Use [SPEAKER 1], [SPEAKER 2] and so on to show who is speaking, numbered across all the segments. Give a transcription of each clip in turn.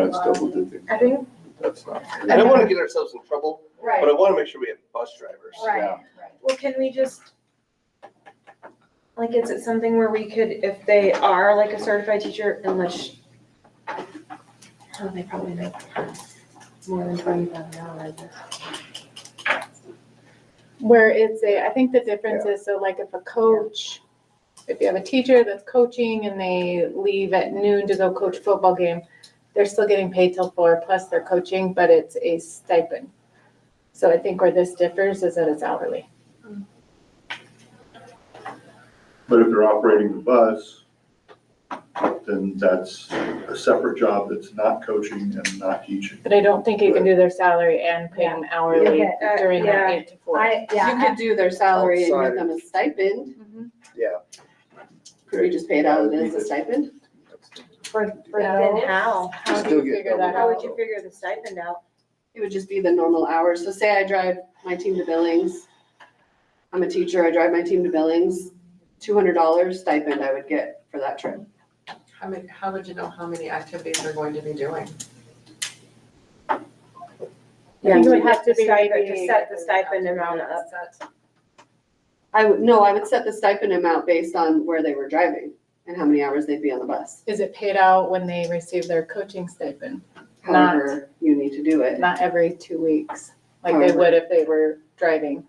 [SPEAKER 1] that's double dipping.
[SPEAKER 2] I think,
[SPEAKER 1] That's not.
[SPEAKER 3] I don't wanna get ourselves in trouble, but I
[SPEAKER 2] right,
[SPEAKER 3] wanna make sure we have bus drivers.
[SPEAKER 2] right.
[SPEAKER 1] yeah.
[SPEAKER 2] Well, can we just, like, is it something where we could, if they are like a certified teacher, and let's, oh, they probably make more than twenty thousand dollars.
[SPEAKER 4] Where it's a, I think the difference is, so like if a coach, if you have a teacher that's coaching and they leave at noon to go coach football game, they're still getting paid till four plus their coaching, but it's a stipend. So I think where this differs is that it's hourly.
[SPEAKER 1] But if they're operating the bus, then that's a separate job that's not coaching and not teaching.
[SPEAKER 4] But I don't think you can do their salary and pay them hourly
[SPEAKER 5] Yeah.
[SPEAKER 2] Uh,
[SPEAKER 4] during
[SPEAKER 2] yeah.
[SPEAKER 4] that eight to four.
[SPEAKER 5] I, yeah.
[SPEAKER 6] You could do their salary and give
[SPEAKER 3] Outside.
[SPEAKER 6] them a stipend.
[SPEAKER 3] Yeah.
[SPEAKER 6] Could we just pay it out as a stipend?
[SPEAKER 5] For, for
[SPEAKER 2] But
[SPEAKER 5] the
[SPEAKER 2] then how?
[SPEAKER 4] How
[SPEAKER 3] Still
[SPEAKER 4] do you
[SPEAKER 3] get
[SPEAKER 4] figure that
[SPEAKER 2] How
[SPEAKER 4] out?
[SPEAKER 2] would you figure the stipend out?
[SPEAKER 6] It would just be the normal hours. So say I drive my team to Billings. I'm a teacher, I drive my team to Billings, two hundred dollars stipend I would get for that trip.
[SPEAKER 7] How many, how would you know how many activities they're going to be doing?
[SPEAKER 4] Yeah, you would have to be
[SPEAKER 2] Stipend,
[SPEAKER 4] maybe-
[SPEAKER 2] To set the stipend amount up.
[SPEAKER 6] I would, no, I would set the stipend amount based on where they were driving and how many hours they'd be on the bus.
[SPEAKER 4] Is it paid out when they receive their coaching stipend? Not-
[SPEAKER 6] However, you need to do it.
[SPEAKER 4] Not every two weeks, like they would if they were driving.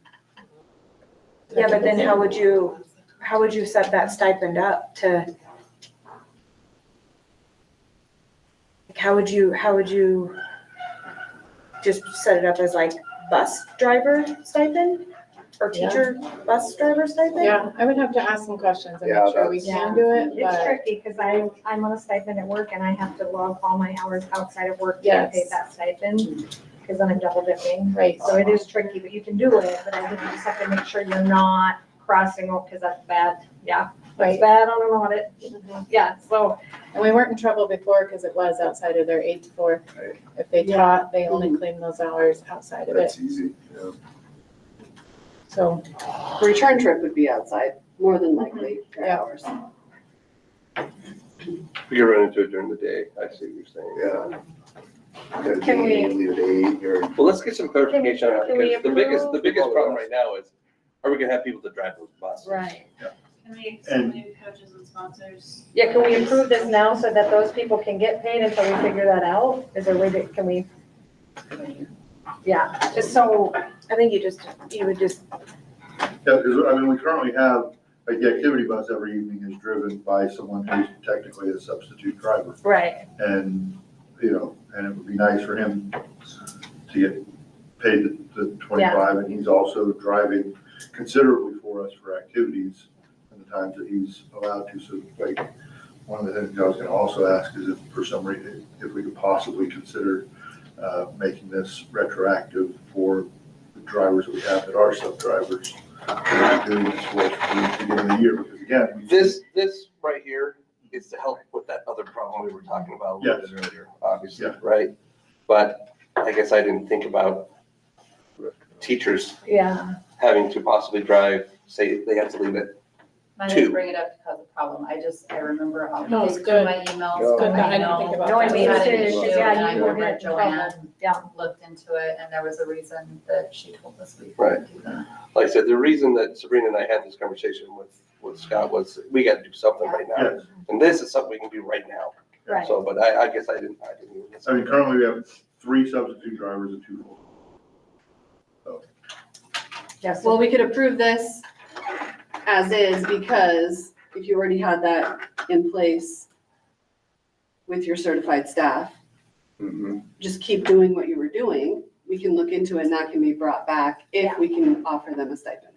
[SPEAKER 2] Yeah, but then how would you, how would you set that stipend up to? Like, how would you, how would you just set it up as like bus driver stipend? Or teacher bus driver stipend?
[SPEAKER 4] Yeah, I would have to ask some questions and
[SPEAKER 3] Yeah,
[SPEAKER 4] make sure we
[SPEAKER 5] that's-
[SPEAKER 4] can do it,
[SPEAKER 5] It's
[SPEAKER 4] but
[SPEAKER 5] tricky because I, I'm on a stipend at work and I have to log all my hours outside of work to get paid
[SPEAKER 4] Yes.
[SPEAKER 5] that stipend. Because then I'm double dipping.
[SPEAKER 4] right,
[SPEAKER 5] So it is tricky, but you can do it, but I think you just have to make sure you're not crossing off because that's bad. Yeah, it's
[SPEAKER 4] right.
[SPEAKER 5] bad on an audit. Yeah, so
[SPEAKER 4] And we weren't in trouble before because it was outside of their eight to four.
[SPEAKER 3] Right.
[SPEAKER 4] If they taught, they only claimed those hours outside of it,
[SPEAKER 3] That's easy, yeah.
[SPEAKER 4] so.
[SPEAKER 6] Return trip would be outside, more than likely, their
[SPEAKER 4] Yeah.
[SPEAKER 6] hours.
[SPEAKER 3] We could run into it during the day, I see what you're saying, yeah.
[SPEAKER 5] Can we-
[SPEAKER 1] Leave at eight or
[SPEAKER 3] Well, let's get some clarification on that,
[SPEAKER 5] Can we
[SPEAKER 3] because the biggest, the
[SPEAKER 5] approve?
[SPEAKER 3] biggest problem right now is, are we gonna have people to drive those buses?
[SPEAKER 2] Right.
[SPEAKER 8] Can we
[SPEAKER 1] And-
[SPEAKER 8] exclude coaches and sponsors?
[SPEAKER 5] Yeah, can we improve this now so that those people can get paid until we figure that out? Is there a way that, can we? Yeah, just so,
[SPEAKER 2] I think you just, you would just,
[SPEAKER 1] Yeah, because, I mean, we currently have, like, the activity bus every evening is driven by someone who's technically a substitute driver.
[SPEAKER 5] right,
[SPEAKER 1] And, you know, and it would be nice for him to get paid the- the twenty-five, and he's also driving considerably for us for activities and the times that he's allowed to, so, like, one of the things I was gonna also ask is if, for some reason, if we could possibly consider, uh, making this retroactive for the drivers that we have that are sub-drivers, that are doing this for us from the beginning of the year, because again, we-
[SPEAKER 3] This, this right here is to help with that other problem we were talking about a little bit earlier, obviously,
[SPEAKER 1] Yeah.
[SPEAKER 3] right? But I guess I didn't think about teachers
[SPEAKER 5] yeah.
[SPEAKER 3] having to possibly drive, say, they have to leave at
[SPEAKER 9] I
[SPEAKER 3] two.
[SPEAKER 9] didn't bring it up to cause a problem, I just, I remember, I'll
[SPEAKER 4] No, it's
[SPEAKER 9] look through
[SPEAKER 4] good.
[SPEAKER 9] my emails.
[SPEAKER 3] It's good,
[SPEAKER 9] I
[SPEAKER 4] but I didn't
[SPEAKER 9] know
[SPEAKER 4] think about
[SPEAKER 9] there
[SPEAKER 5] that.
[SPEAKER 9] was an
[SPEAKER 5] Yeah,
[SPEAKER 9] issue,
[SPEAKER 5] you
[SPEAKER 9] and I
[SPEAKER 5] were
[SPEAKER 9] remember
[SPEAKER 5] in trouble.
[SPEAKER 9] Joanne
[SPEAKER 5] Yeah.
[SPEAKER 9] looked into it, and there was a reason that she told us we
[SPEAKER 3] Right.
[SPEAKER 9] couldn't do that.
[SPEAKER 3] Like I said, the reason that Sabrina and I had this conversation with, with Scott was, we gotta do something right now.
[SPEAKER 1] yes.
[SPEAKER 3] And this is something we can do right now.
[SPEAKER 5] Right.
[SPEAKER 3] So, but I, I guess I didn't, I didn't even.
[SPEAKER 1] I mean, currently we have three substitute drivers and two full.
[SPEAKER 5] Yes.
[SPEAKER 6] Well, we could approve this as is because if you already had that in place with your certified staff,
[SPEAKER 3] Mhm.
[SPEAKER 6] just keep doing what you were doing. We can look into it and that can be brought back if we can offer them a stipend.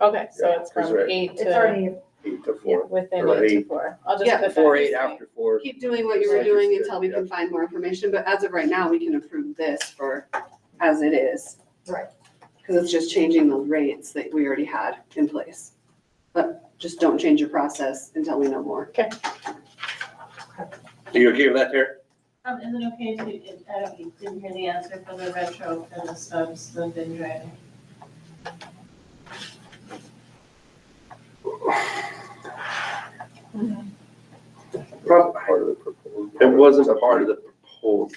[SPEAKER 4] Okay, so
[SPEAKER 10] Yeah,
[SPEAKER 4] it's
[SPEAKER 10] that's
[SPEAKER 4] from
[SPEAKER 10] right.
[SPEAKER 4] eight
[SPEAKER 5] It's
[SPEAKER 4] to,
[SPEAKER 5] already,
[SPEAKER 10] eight to four.
[SPEAKER 4] within
[SPEAKER 10] Or
[SPEAKER 4] eight to
[SPEAKER 10] eight.
[SPEAKER 4] four. I'll just
[SPEAKER 6] Yeah.
[SPEAKER 4] put that.
[SPEAKER 10] Four,
[SPEAKER 4] this
[SPEAKER 10] eight,
[SPEAKER 4] way.
[SPEAKER 10] after four.
[SPEAKER 6] Keep doing what you were doing until we can find more information, but as of right now, we can approve this for as it is.
[SPEAKER 5] Right.
[SPEAKER 6] Because it's just changing the rates that we already had in place. But just don't change your process until we know more.
[SPEAKER 3] Are you okay with that, Tara?
[SPEAKER 8] Um, is it okay to, I don't, didn't hear the answer for the retro for the subs, the bin driving?
[SPEAKER 3] Prob-
[SPEAKER 10] Part of the proposal.
[SPEAKER 3] It wasn't part of the proposal.